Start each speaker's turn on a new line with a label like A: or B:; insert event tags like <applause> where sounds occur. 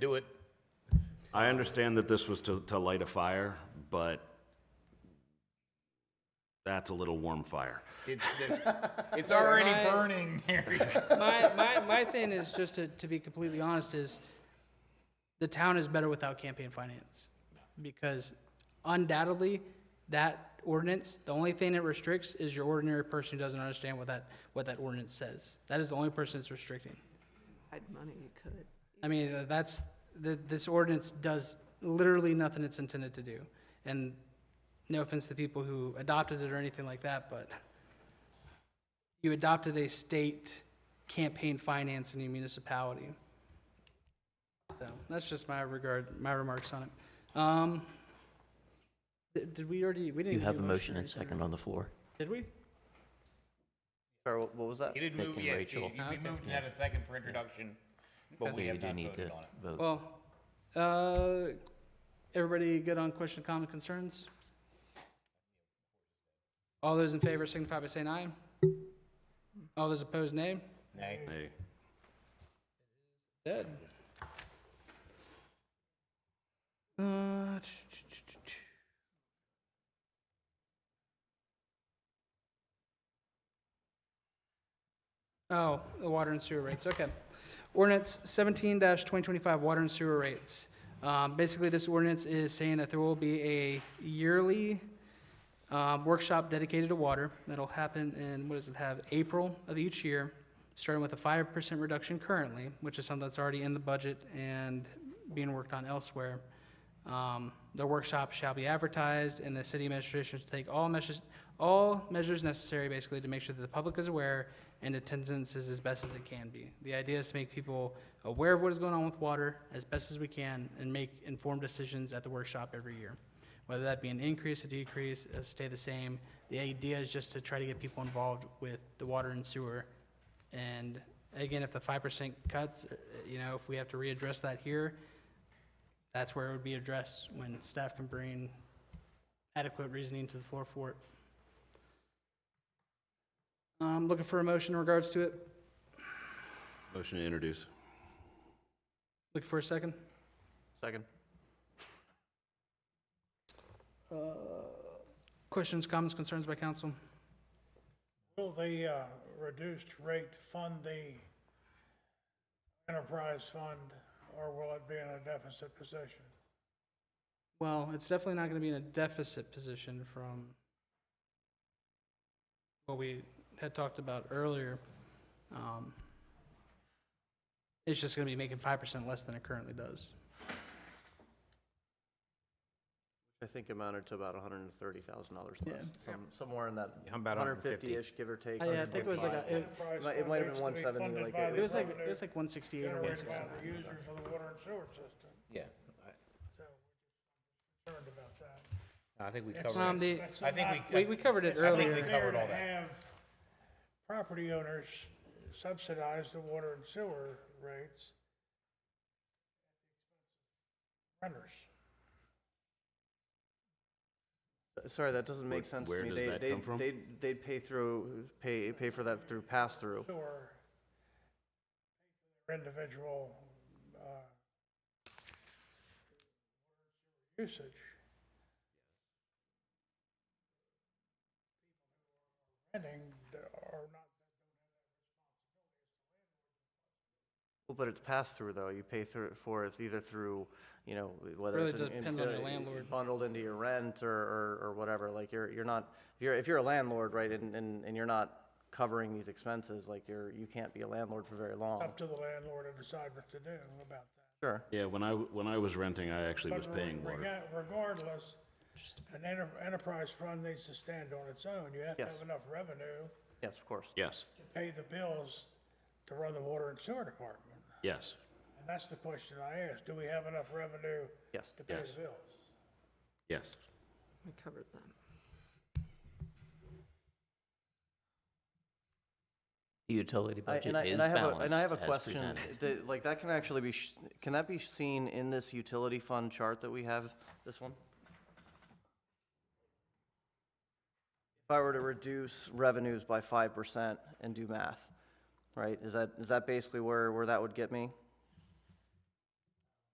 A: do it.
B: I understand that this was to, to light a fire, but that's a little warm fire.
A: It's, it's already
C: Yeah, I-
A: burning, Harry.
C: my, my, my thing is just to, to be completely honest is the town is better without campaign finance because undoubtedly that ordinance the only thing it restricts is your ordinary person who doesn't understand what that what that ordinance says that is the only person it's restricting
D: hide money, you could.
C: I mean, uh, that's, th this ordinance does literally nothing it's intended to do. And no offense to people who adopted it or anything like that, but <laughs> you adopted a state campaign finance in your municipality. So that's just my regard, my remarks on it. Um, di- did we already, we didn't.
E: You
C: do
E: have a motion and
C: right there.
E: second on the floor.
C: Did we?
F: Sorry, what what was that?
A: You did move,
E: Second,
A: yeah, you-
E: Rachel.
A: you- we moved and had a second for introduction, but we
E: Okay, we
A: have
E: do
A: not
E: need
A: voted
E: to
A: on it.
E: vote.
C: Well, uh, everybody good on question, comment, concerns? All those in favor signify by saying aye. All those opposed, nay.
A: Nay.
B: Hey,
C: Dead. Uh, tch, tch, tch, tch, tch. Oh, the water and sewer rates, okay. Ordinance seventeen twenty twenty-five, water and sewer rates. Um, basically, this ordinance is saying that there will be a yearly, um, workshop dedicated to water. That'll happen in, what does it have, April of each year, starting with a five percent reduction currently, which is something that's already in the budget and being worked on elsewhere. Um, the workshop shall be advertised, and the city administration should take all measures, all measures necessary, basically, to make sure that the public is aware and attendance is as best as it can be. The idea is to make people aware of what is going on with water as best as we can and make informed decisions at the workshop every year whether that be an increase, a decrease, uh, stay the same. The idea is just to try to get people involved with the water and sewer. And again, if the five percent cuts, uh, you know, if we have to readdress that here, that's where it would be addressed, when staff can bring adequate reasoning to the floor for it. I'm Um, looking for a motion in regards to it.
B: motion to introduce.
C: Looking for a second.
F: Second.
C: Questions, comments, concerns by council?
G: Will the uh, reduced rate fund the enterprise fund, or will it be in a deficit position?
C: Well, it's definitely not gonna be in a deficit position from what we had talked about earlier. Um, It's just gonna be making five percent less than it currently does.
F: I think amounted to about hundred and thirty thousand dollars less,
C: Yeah.
F: some, somewhere in that.
A: Yeah, about 150.
F: Hundred fifty-ish, give or take.
C: Oh, yeah, I think it was like a-
F: 155.
G: Enterprise
F: might- it
G: fund
F: might have
G: needs to be
F: been 170,
G: funded
F: like
G: by
F: it
G: the
C: It was like, it
G: revenue
C: was like one sixty-eight or one
G: Generated by the
C: sixty-nine.
G: user for the water and sewer system,
A: Yeah,
G: so we're concerned about that.
A: I I think we
C: Um,
A: covered it.
C: the,
G: That's
A: I think
G: not-
A: we-
C: we, we covered it
G: it's not
A: think we
C: earlier.
A: covered all
G: fair to
A: that.
G: have Property owners subsidize the water and sewer rates. Renters.
F: Sorry, that doesn't make
B: Where-
F: sense
B: where
F: to me.
B: does
F: They,
B: that
F: they,
B: come from?
F: they'd, they'd pay through, pay, pay for that through pass-through.
G: or their individual uh, usage. Renting there are not,
F: Well, But it's pass-through though. You pay through, for it either through, you know, whether
C: Really
F: it's. in- in-
C: depends on your
F: uh,
C: landlord.
F: Bundled into your rent or, or, or whatever. Like you're, you're not, if you're, if you're a landlord, right, and, and, and you're not covering these expenses, like you're, you can't be a landlord for very long.
G: up to the landlord to decide what to do about that.
F: Sure.
B: Yeah, when I, when I was renting, I actually was
G: But
B: paying
G: rega-
B: water.
G: Regardless, an enter- enterprise fund needs to stand on its own. You have to
F: Yes.
G: have enough revenue
F: Yes, of course.
B: Yes,
G: to pay the bills to run the water and sewer department.
B: yes,
G: And that's the question I asked, do we have enough revenue
F: Yes.
G: to pay
B: Yes.
G: the bills?
B: yes.
D: We covered that.
E: The utility
F: I-
E: budget
F: I-
E: is
F: I have a- and I have a
E: balanced as
F: question.
E: presented.
F: Th- Like, that can actually be, sh- can that be seen in this utility fund chart that we have, this one? If I were to reduce revenues by five percent and do math, right, is that, is that basically where, where that would get me?